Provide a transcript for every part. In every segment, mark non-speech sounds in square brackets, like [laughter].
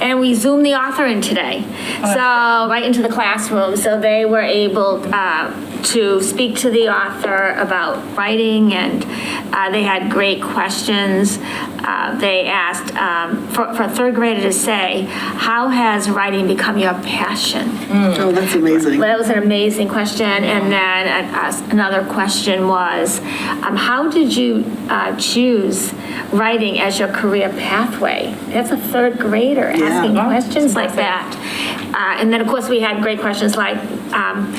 and we zoomed the author in today. So, right into the classroom, so they were able uh, to speak to the author about writing, and uh, they had great questions. Uh, They asked, um, for for a third grader to say, how has writing become your passion? Oh, that's amazing. Well, that was an amazing question. And then uh, us- another question was, um, how did you uh, choose writing as your career pathway? That's a third grader asking Yeah. questions like that. Uh, And then, of course, we had great questions like, um,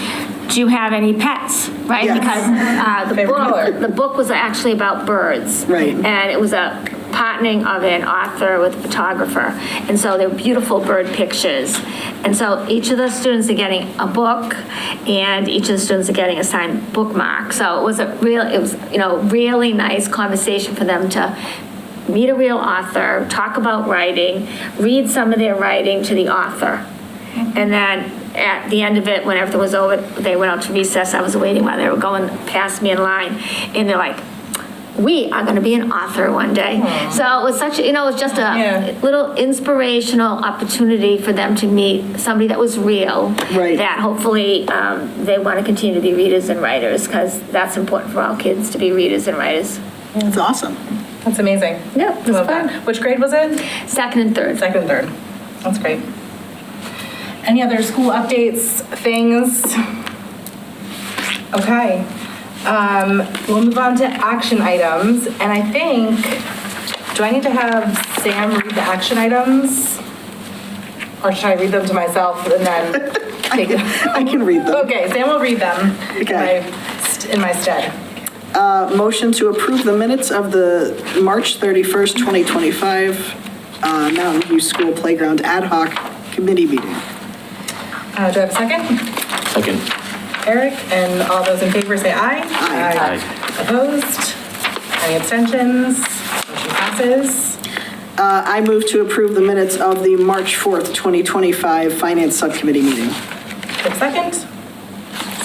do you have any pets? Right? Yes. Because uh, the Favorite color. book, the book was actually about birds. Right. And it was a partnering of an author with a photographer. And so they're beautiful bird pictures. And so each of the students are getting a book and each of the students are getting assigned bookmark. So it was a real, it was, you know, really nice conversation for them to meet a real author, talk about writing, read some of their writing to the author. And then at the end of it, when everything was over, they went out to recess. I was waiting while they were going past me in line. And they're like, we are going to be an author one day. So it was such, you know, it was just Yeah. a little inspirational opportunity for them to meet somebody that was real. Right. That hopefully um, they want to continue to be readers and writers because that's important for all kids to be readers and writers. That's awesome. That's amazing. Yeah, it was Love that. fun. Which grade was it? Second and third. Second, third. That's great. Any other school updates, things? Okay. Um, we'll move on to action items, and I think, do I need to have Sam read the action items? Or should I read them to myself [laughs] and then take them? I can read them. Okay, Sam will read them. in Okay. my st- In my stead. Uh, Motion to approve the minutes of the March 31st, 2025 uh, Mountain View School Playground Ad hoc Committee Meeting. Uh, do I have a second? Second. Eric, and all those in favor say aye. Aye. Opposed? Any abstentions? Motion passes. Uh, I move to approve the minutes of the March 4th, 2025 Finance Subcommittee Meeting. Take a second.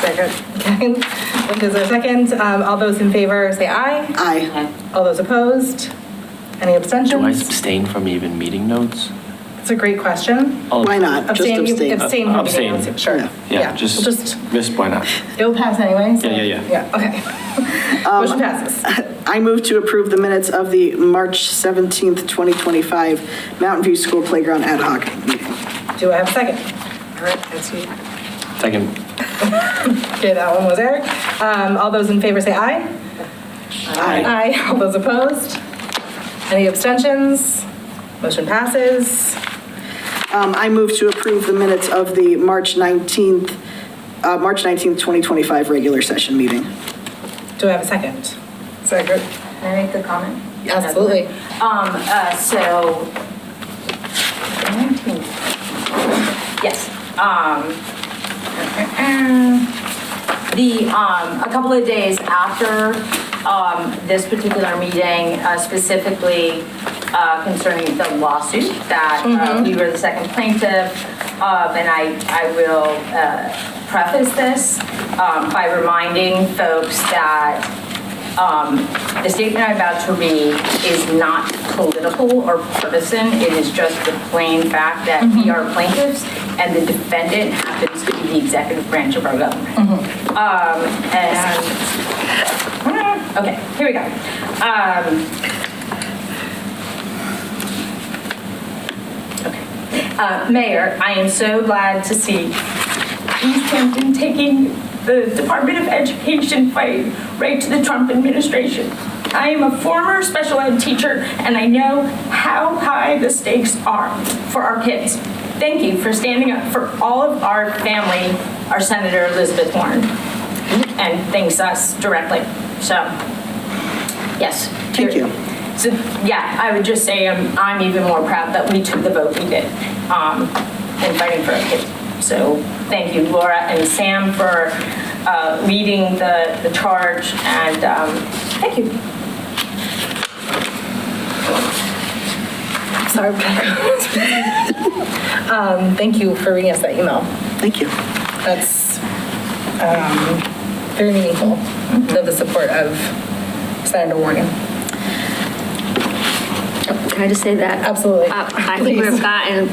Second. Second. If there's a second, um, all those in favor say aye. Aye. All those opposed? Any Do I abstentions? abstain from even meeting notes? It's a great question. I'll- Why not? Just Abstain, you abstain. abstain from Abstain. meeting. notes, Sure. Yeah. Yeah, We'll just, Just, just why not? it'll pass anyway. so- Yeah, yeah, yeah. Yeah, okay. [laughs] Motion Um, [laughs] passes. I move to approve the minutes of the March 17th, 2025 Mountain View School Playground Ad hoc Meeting. Do I have a second? All right, that's you. Second. Okay, that one was Eric. Um, all those in favor say aye. Aye. Aye. [laughs] All those opposed? Any abstentions? Motion passes. Um, I move to approve the minutes of the March 19th, uh, March 19th, 2025 regular session meeting. Do I have a second? Second. Can I make the comment? Absolutely. Um, uh, so, 19. Yes, um, [clears throat] the, um, a couple of days after, um, this particular meeting, uh, specifically, uh, concerning the lawsuit that, uh, we were the second plaintiff, um, and I, I will, uh, preface this, um, by reminding folks that, Um, the statement I'm about to read is not political or partisan. It is just the plain fact that we are plaintiffs and the defendant happens to be the executive branch of our government. Um, And, [laughs] okay, here we go. Um, Okay. Uh, Mayor, I am so glad to see East Hampton taking the Department of Education fight right to the Trump administration. I am a former special ed teacher, and I know how high the stakes are for our kids. Thank you for standing up for all of our family, our Senator Elizabeth Warren, and thanks us directly. So, yes. Thank you. So, yeah, I would just say I'm, I'm even more proud that we took the vote we did um, in fighting for our kids. So thank you, Laura and Sam, for uh, leading the, the charge, and um, thank you. Sorry. Um, thank you for reading us that email. Thank you. That's, um, very meaningful, of the support of Senator Warren. Can I just say that? Absolutely. Uh, I think Please. we've gotten